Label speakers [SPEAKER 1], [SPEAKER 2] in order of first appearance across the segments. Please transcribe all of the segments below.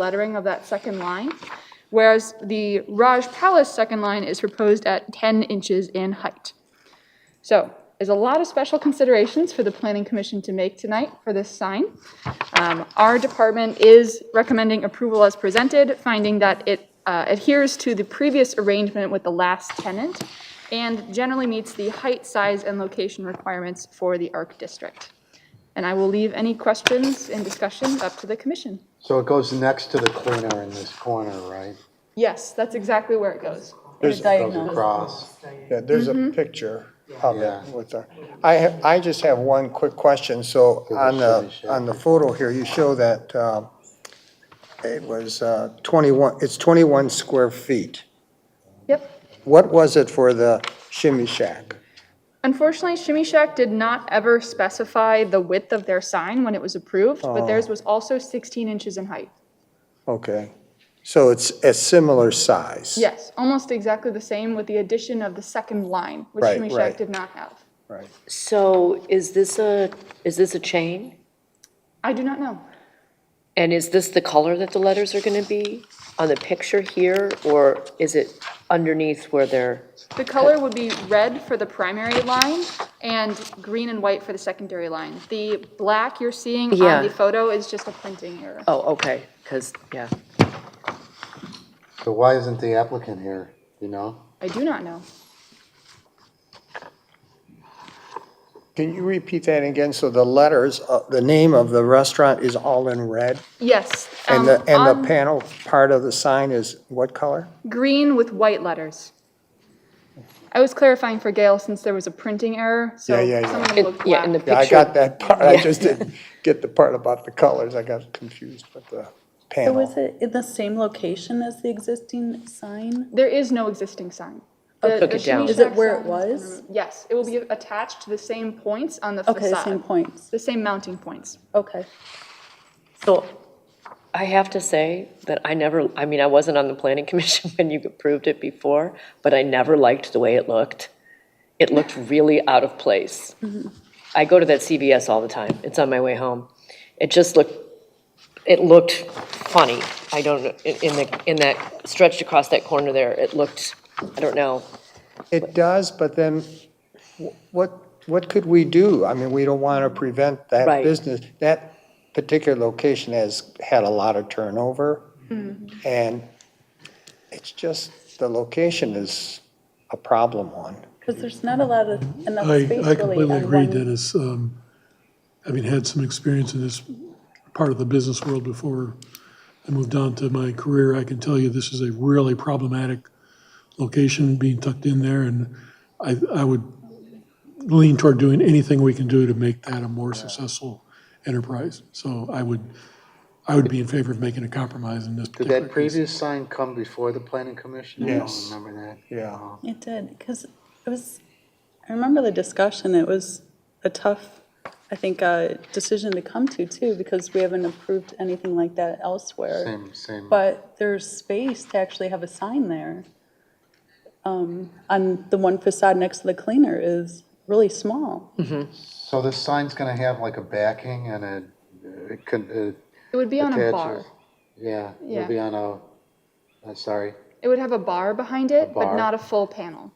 [SPEAKER 1] lettering of that second line, whereas the Raj Palace second line is proposed at 10 inches in height. So there's a lot of special considerations for the Planning Commission to make tonight for this sign. Um, Our department is recommending approval as presented, finding that it uh, adheres to the previous arrangement with the last tenant and generally meets the height, size, and location requirements for the ARC district. And I will leave any questions and discussions up to the commission.
[SPEAKER 2] So it goes next to the cleaner in this corner, right?
[SPEAKER 1] Yes, that's exactly where it goes.
[SPEAKER 2] It goes across.
[SPEAKER 3] Yeah, there's a
[SPEAKER 1] Mm-hmm.
[SPEAKER 3] picture of
[SPEAKER 2] Yeah.
[SPEAKER 3] it with our, I, ha- I just have one quick question. So
[SPEAKER 2] It was
[SPEAKER 3] on the,
[SPEAKER 2] finished, yeah.
[SPEAKER 3] on the photo here, you show that um, it was uh, 21, it's 21 square feet.
[SPEAKER 1] Yep.
[SPEAKER 3] What was it for the shimmy shack?
[SPEAKER 1] Unfortunately, Shimmy Shack did not ever specify the width of their sign when it was approved,
[SPEAKER 3] Oh.
[SPEAKER 1] but theirs was also 16 inches in height.
[SPEAKER 3] Okay, so it's a similar size?
[SPEAKER 1] Yes, almost exactly the same with the addition of the second line, which
[SPEAKER 3] Right,
[SPEAKER 1] Shimmy Shack
[SPEAKER 3] right.
[SPEAKER 1] did not have.
[SPEAKER 3] Right.
[SPEAKER 4] So is this a, is this a chain?
[SPEAKER 1] I do not know.
[SPEAKER 4] And is this the color that the letters are going to be on the picture here? Or is it underneath where they're,
[SPEAKER 1] The color would be red for the primary line and green and white for the secondary line. The black you're seeing
[SPEAKER 4] Yeah.
[SPEAKER 1] on the photo is just a printing error.
[SPEAKER 4] oh, okay, because, yeah.
[SPEAKER 2] So why isn't the applicant here, you know?
[SPEAKER 1] I do not know.
[SPEAKER 3] Can you repeat that again? So the letters, uh, the name of the restaurant is all in red?
[SPEAKER 1] Yes. um,
[SPEAKER 3] And the, and
[SPEAKER 1] on
[SPEAKER 3] the panel part of the sign is what color?
[SPEAKER 1] Green with white letters. I was clarifying for Gail since there was a printing error, so
[SPEAKER 3] Yeah, yeah, yeah.
[SPEAKER 1] some of them
[SPEAKER 4] It-
[SPEAKER 1] look
[SPEAKER 4] Yeah, in the
[SPEAKER 1] black.
[SPEAKER 4] picture.
[SPEAKER 3] Yeah, I got that part, I just didn't get the part about the colors, I got confused with the
[SPEAKER 5] So was
[SPEAKER 3] panel.
[SPEAKER 5] it in the same location as the existing sign?
[SPEAKER 1] There is no existing sign. The-
[SPEAKER 4] Oh, Took
[SPEAKER 1] the
[SPEAKER 4] it down.
[SPEAKER 1] Shimmy
[SPEAKER 5] Is it
[SPEAKER 1] Shack
[SPEAKER 5] where it
[SPEAKER 1] sign-
[SPEAKER 5] was?
[SPEAKER 1] Yes, it will be attached to the same points on the
[SPEAKER 5] Okay, the same
[SPEAKER 1] facade,
[SPEAKER 5] points,
[SPEAKER 1] the same mounting points.
[SPEAKER 5] okay.
[SPEAKER 4] So I have to say that I never, I mean, I wasn't on the planning commission when you approved it before, but I never liked the way it looked. It looked really out of place. I go to that CVS all the time. It's on my way home. It just looked, it looked funny. I don't, know in in the, in that, stretched across that corner there, it looked, I don't know.
[SPEAKER 3] It does, but then wh- what, what could we do? I mean, we don't want to prevent that
[SPEAKER 4] Right.
[SPEAKER 3] business. That particular location has had a lot of turnover,
[SPEAKER 5] Mm-hmm.
[SPEAKER 3] and it's just, the location is a problem one.
[SPEAKER 5] Because there's not a lot of, enough
[SPEAKER 6] I,
[SPEAKER 5] space
[SPEAKER 6] I
[SPEAKER 5] really
[SPEAKER 6] completely
[SPEAKER 5] on
[SPEAKER 6] agree,
[SPEAKER 5] one.
[SPEAKER 6] Dennis. Um, Having had some experience in this part of the business world before I moved on to my career, I can tell you this is a really problematic location being tucked in there, and I, I would lean toward doing anything we can do to make that a more successful enterprise. So I would, I would be in favor of making a compromise in this
[SPEAKER 2] Did
[SPEAKER 6] particular
[SPEAKER 2] that
[SPEAKER 6] case.
[SPEAKER 2] previous sign come before the planning commission? I don't
[SPEAKER 3] Yes.
[SPEAKER 2] Remember that?
[SPEAKER 3] Yeah.
[SPEAKER 5] It did, because it was, I remember the discussion, it was a tough, I think, uh, decision to come to too, because we haven't approved anything like that elsewhere.
[SPEAKER 2] Same, same.
[SPEAKER 5] But there's space to actually have a sign there. Um, On the one facade next to the cleaner is really small.
[SPEAKER 2] So this sign's gonna have like a backing and a, uh, it could, it
[SPEAKER 1] It would be on a bar.
[SPEAKER 2] attaches. Yeah,
[SPEAKER 1] Yeah.
[SPEAKER 2] it'll be on a, I'm sorry.
[SPEAKER 1] It would have a bar behind it, but
[SPEAKER 2] bar.
[SPEAKER 1] not a full panel.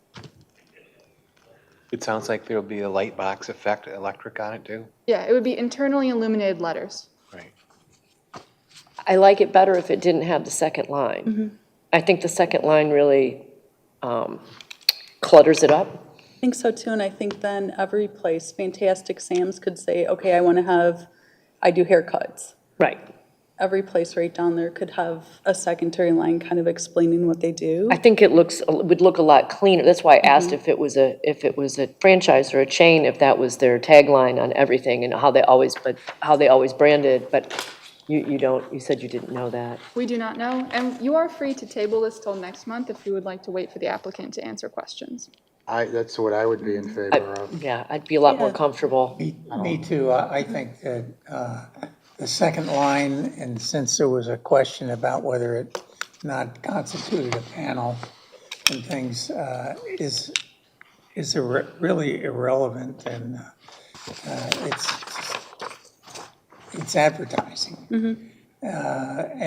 [SPEAKER 7] It sounds like there'll be a light box effect, electric on it too.
[SPEAKER 1] Yeah, it would be internally illuminated letters.
[SPEAKER 7] Right.
[SPEAKER 4] I like it better if it didn't have the second line. I think the second line really um, clutters it up.
[SPEAKER 5] I think so too, and I think then every place, Fantastic Sam's could say, okay, I want to have, I do haircuts.
[SPEAKER 4] Right.
[SPEAKER 5] Every place right down there could have a secondary line kind of explaining what they do.
[SPEAKER 4] I think it looks, would look a lot cleaner. That's why I asked if it was a, if it was a franchise or a chain, if that was their tagline on everything and how they always, but, how they always branded, but you, you don't, you said you didn't know that.
[SPEAKER 1] We do not know, and you are free to table this till next month if you would like to wait for the applicant to answer questions.
[SPEAKER 2] I, that's what I would be in favor of.
[SPEAKER 4] Yeah, I'd be a lot more comfortable.
[SPEAKER 8] Me me too. I I think that uh, the second line, and since there was a question about whether it not constituted a panel and things, uh, is, is irre- really irrelevant and uh, uh, it's, it's advertising. Uh,